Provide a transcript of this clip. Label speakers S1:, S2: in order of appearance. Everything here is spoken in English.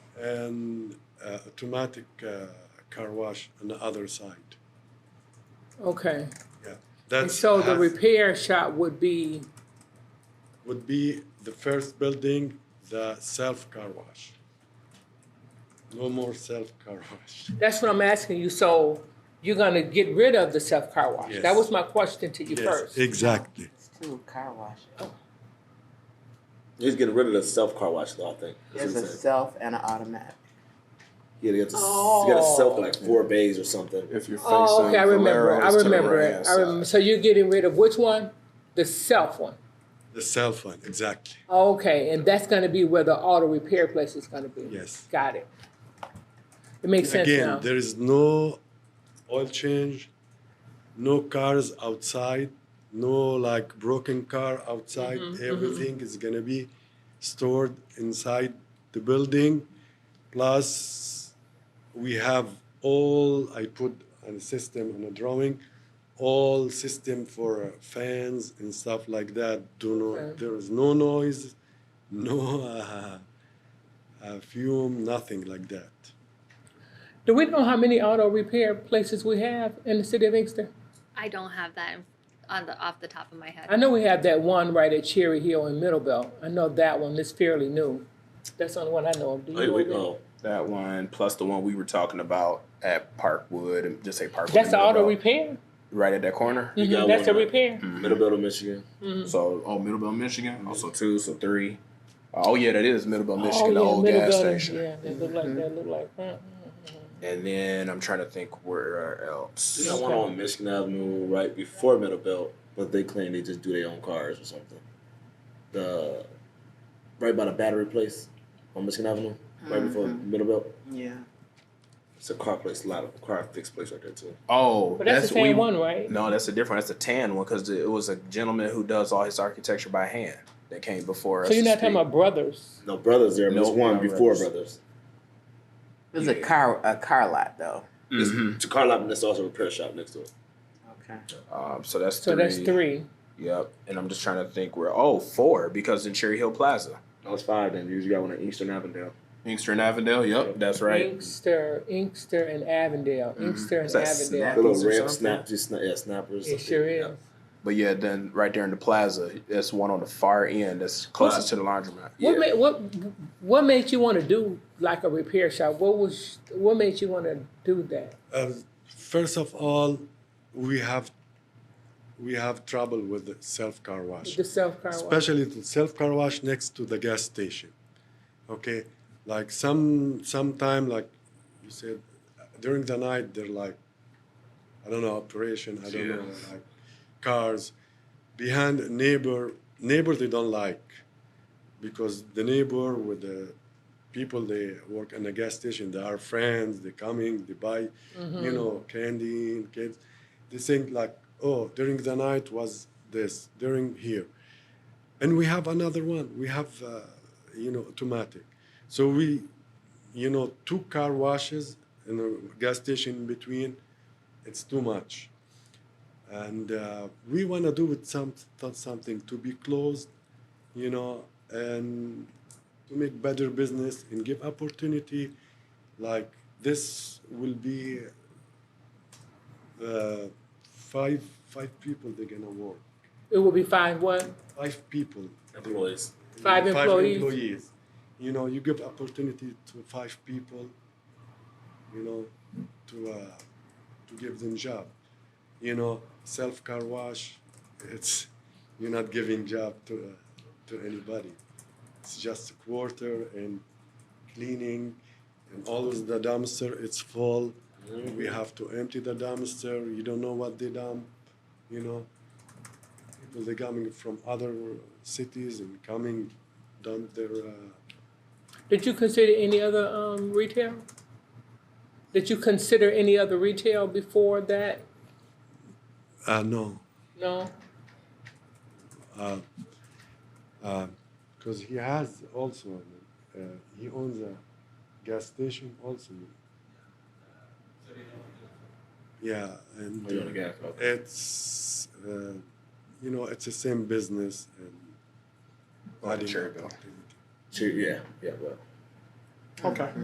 S1: and uh, automatic uh, car wash on the other side.
S2: Okay,
S1: Yeah,
S2: and
S1: that's
S2: so the
S1: has-
S2: repair shop would be,
S1: would be the first building, the self car wash. No more self car wash.
S2: that's what I'm asking you, so you're gonna get rid of the self-car wash? That
S1: Yes.
S2: was my question to you
S1: Yes,
S2: first.
S1: Exactly.
S3: It's two car washes.
S4: He's getting rid of the self car wash though. I think. That's
S3: There's
S4: what
S3: a
S4: he said.
S3: self and an automatic.
S4: Yeah, they got to, you got to self like four bays or something.
S5: If you're facing
S2: Oh, okay, I remember,
S5: Valero,
S2: I
S5: it's to the
S2: remember it,
S5: right-hand
S2: I remember, so you're getting rid of which one? The self one?
S1: The self one, exactly.
S2: Okay, and that's gonna be where the auto repair place is gonna be?
S1: Yes.
S2: Got it. It makes sense now.
S1: Again, there is no oil change, no cars outside, no like broken car outside.
S2: Mm-hmm,
S1: Everything is gonna be stored inside the building. Plus, we have all, I put on a system on a drawing, all system for fans and stuff like that. Do not,
S2: Okay.
S1: there is no noise, no uh, uh, fume, nothing like that.
S2: Do we know how many auto repair places we have in the city of Inkster?
S6: I don't have that in- on the off the top of my head.
S2: I know we have that one right at Cherry Hill in Middlebelt. I know that one is fairly new. That's the only one I know of. Do you
S4: Like,
S2: know
S4: we,
S2: of any?
S4: oh,
S5: That one plus the one we were talking about at Parkwood and just say Parkwood.
S2: That's the
S5: Middle
S2: auto
S5: Belt,
S2: repair?
S5: Right at that corner.
S4: You
S2: Mhm,
S4: got
S2: That's the
S4: uh, one.
S2: repair?
S4: Middle Belt of Michigan.
S2: Mm-hmm.
S5: So oh Middlebelt, Michigan. Also two, so three. Oh yeah, that is Middlebelt,
S2: Oh,
S5: Michigan,
S2: yeah,
S5: the old
S2: Middle
S5: gas
S2: Building.
S5: station. Mm-hmm.
S2: Yeah, that look like, that look like, mm,
S5: And then I'm trying to think where
S4: You
S5: else.
S4: got one on Michigan Avenue right before Middle Belt, but they claim they just do their own cars or something. The right by the battery place on Michigan Avenue, right before Middle Belt.
S3: Yeah.
S4: It's a car place, a lot of car fix place right there too.
S5: Oh,
S2: but that's the
S5: we-
S2: same one, right?
S5: No, that's a different. That's a tan one because it was a gentleman who does all his architecture by hand that came before us.
S2: So you're
S5: to
S2: not talking
S5: speak.
S2: about brothers?
S4: No brothers there, but
S5: No,
S4: it's one
S5: not
S4: before
S5: Brothers.
S4: brothers.
S3: There's a
S5: Yeah.
S3: car a car lot though.
S5: Mhm.
S4: It's a car lot and there's also a repair shop next to it.
S3: Okay.
S5: Um, so that's
S2: So
S5: three.
S2: that's three.
S5: Yep. And I'm just trying to think where. Oh, four because in Cherry Hill Plaza,
S4: That was five then. You usually got one on Eastern Avondale.
S5: Inkster and Avondale. Yep, that's
S2: Mm-hmm.
S5: right.
S2: Inkster, Inkster and Avondale,
S5: Mm-hmm.
S2: Inkster and
S5: Is that
S4: The
S5: Snap?
S2: Avondale.
S4: little
S5: Snappers or
S4: red
S5: something?
S4: snap, just snap, yeah, snappers.
S2: It sure is.
S5: But yeah, then right there in the plaza, that's one on the far end that's closest to the laundromat.
S2: What made what what made you want to do like a repair shop? What was what made you want to do that?
S1: Uh, first of all, we have we have trouble with the self car wash,
S2: The self car wash.
S1: especially the self car wash next to the gas station. Okay, like some sometime like you said during the night they're like I don't know operation I don't know like cars behind neighbor neighbor they don't like because the neighbor with the people they work in the gas station they are friends they coming they buy
S2: Mm-hmm.
S1: you know candy and kids they think like oh during the night was this during here and we have another one we have uh, you know automatic so we you know two car washes and a gas station in between it's too much and uh, we want to do it some, something to be closed you know and to make better business and give opportunity like this will be uh, five five people they're gonna work
S2: It would be five what?
S1: five people
S4: Employees.
S2: Five employees.
S1: employees. you know you give opportunity to five people you know to uh, to give them job you know self car wash it's you're not giving job to uh, to anybody it's just a quarter and cleaning and always the dumpster it's full we have to empty the dumpster you don't know what they dump you know people they coming from other cities and coming dump their uh,
S2: Did you consider any other um, retail? Did you consider any other retail before that?
S1: Uh, no,
S2: No.
S1: because uh, he has also, uh, he owns a gas station also. Yeah, and
S4: Oh, you own a gas,
S1: uh,
S4: okay.
S1: it's, uh, you know, it's the same business and.
S5: Oh,
S1: adding
S5: Cherryville.
S1: opportunity.
S4: Sure, yeah, yeah, well.
S5: Okay.